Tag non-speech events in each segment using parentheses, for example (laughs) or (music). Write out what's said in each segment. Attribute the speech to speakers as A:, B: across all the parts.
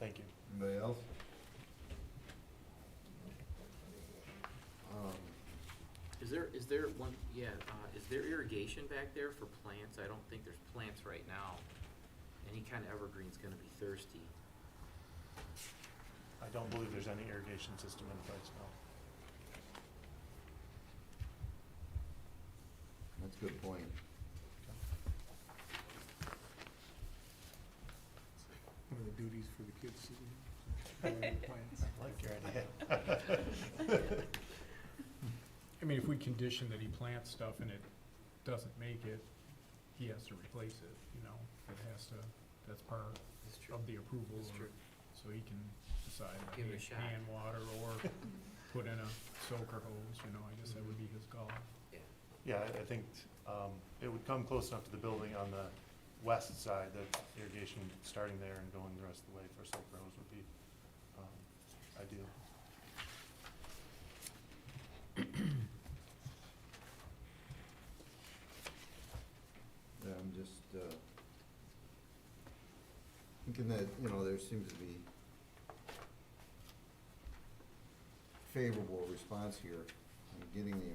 A: Anybody else? Um,
B: Is there, is there one, yeah, uh, is there irrigation back there for plants? I don't think there's plants right now. Any kind of evergreen's gonna be thirsty.
C: I don't believe there's any irrigation system in place, no.
A: That's a good point.
D: One of the duties for the kids to do. watering the plants.
C: I like your idea.
D: (laughs) I mean, if we condition that he plants stuff and it doesn't make it, he has to replace it, you know? It has to, that's part
B: That's
D: of the approval,
B: That's
D: or-
B: true.
D: so he can decide, like,
B: Give it a shot.
D: hey, hand water
B: (laughs)
D: or put in a soaker hose, you know, I guess that would be his call.
C: (laughs) Yeah, I- I think um, it would come close enough to the building on the west side that irrigation starting there and going the rest of the way for Silk Rose would be um, ideal.
A: Yeah, I'm just, uh, thinking that, you know, there seems to be favorable response here. I'm getting the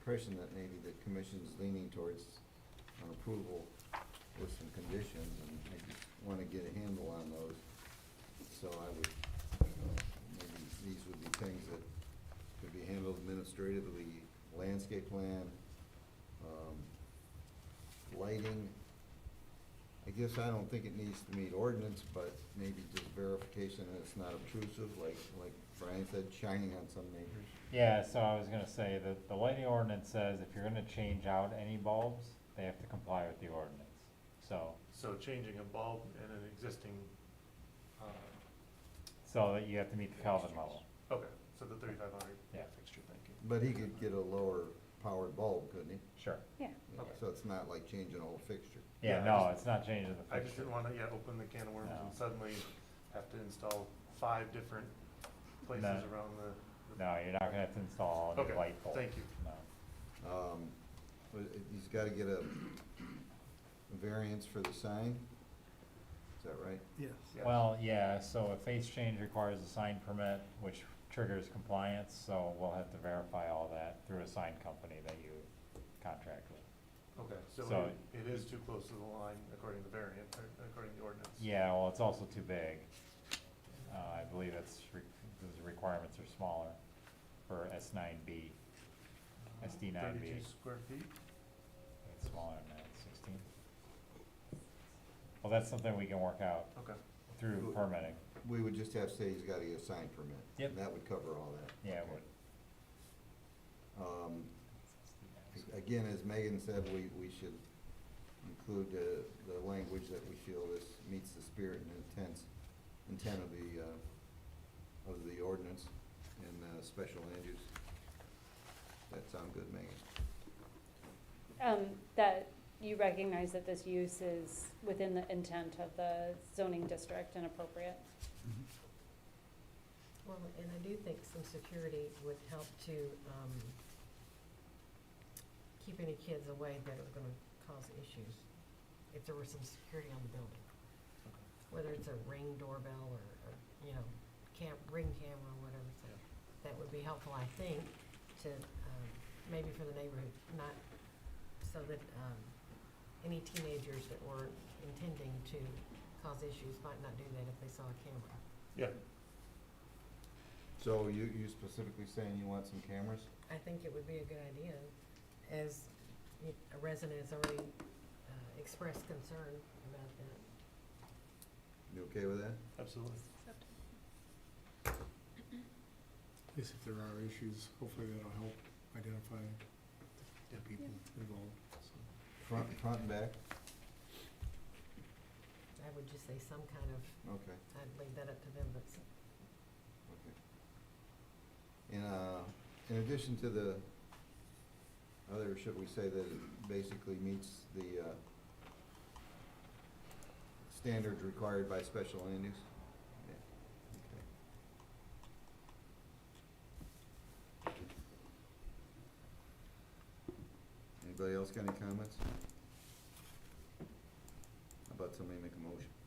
A: impression that maybe the commission's leaning towards an approval with some conditions, and I just wanna get a handle on those. So I would, you know, maybe these would be things that could be handled administratively, landscape plan, um, lighting. I guess I don't think it needs to meet ordinance, but maybe just verification that it's not obtrusive, like, like Brian said, shining on some neighbors.
E: Yeah, so I was gonna say that the lighting ordinance says if you're gonna change out any bulbs, they have to comply with the ordinance. So,
C: So changing a bulb in an existing, uh,
E: so that you have to meet the Kelvin level.
C: okay, so the thirty-five hundred
E: Yeah.
C: fixture, thank you.
A: But he could get a lower powered bulb, couldn't he?
E: Sure.
F: Yeah,
C: Okay.
A: So it's not like changing an old fixture.
C: Yeah,
E: Yeah,
C: I
E: no,
C: just-
E: it's not changing the
C: I just
E: fixture.
C: didn't wanna, yeah, open the can of worms
E: No.
C: and suddenly have to install five different places
E: No.
C: around the. the-
E: No, you're not gonna have to install a
C: Okay,
E: new light bulb.
C: thank you.
E: No.
A: Um, but it- he's gotta get a variance for the sign, is that right?
D: Yes.
C: Yeah.
E: Well, yeah, so a face change requires a sign permit, which triggers compliance, so we'll have to verify all that through a sign company that you contract with.
C: Okay, so
E: So-
C: it- it is too close to the line according to the variant, or according to the ordinance.
E: Yeah, well, it's also too big. Uh, I believe it's, re- those requirements are smaller for S nine B. SD nine B.
C: Thirty-two square feet?
E: It's smaller than that, sixteen. Well, that's something we can work out
C: Okay,
E: through permitting.
A: We would just have to say he's gotta get a sign permit.
E: Yep.
A: And that would cover all that.
E: Yeah, it would.
A: Um, Again, as Megan said, we, we should include the, the language that we feel this meets the spirit and intent, intent of the, uh, of the ordinance and, uh, special land use. That sound good, Megan?
F: um, that you recognize that this use is within the intent of the zoning district and appropriate.
G: Well, and I do think some security would help to, um, keep any kids away that are gonna cause issues, if there were some security on the building. Whether it's a ring doorbell or, or, you know, cam, ring camera, whatever, so, that would be helpful, I think, to, um, maybe for the neighborhood, not, so that, um, any teenagers that were intending to cause issues might not do that if they saw a camera.
C: yeah,
A: So you, you specifically saying you want some cameras?
G: I think it would be a good idea, as y- a resident has already uh, expressed concern about that.
A: You okay with that?
C: absolutely.
D: At least if there are issues, hopefully that'll help identify the people involved, so.
A: Front, front and back?
G: I would just say some kind of,
A: Okay.
G: I'd leave that up to them, but s-
A: Okay. And, uh, in addition to the other, should we say that it basically meets the, uh, standards required by special land use? Yeah. Okay. Anybody else got any comments? How about somebody make a motion?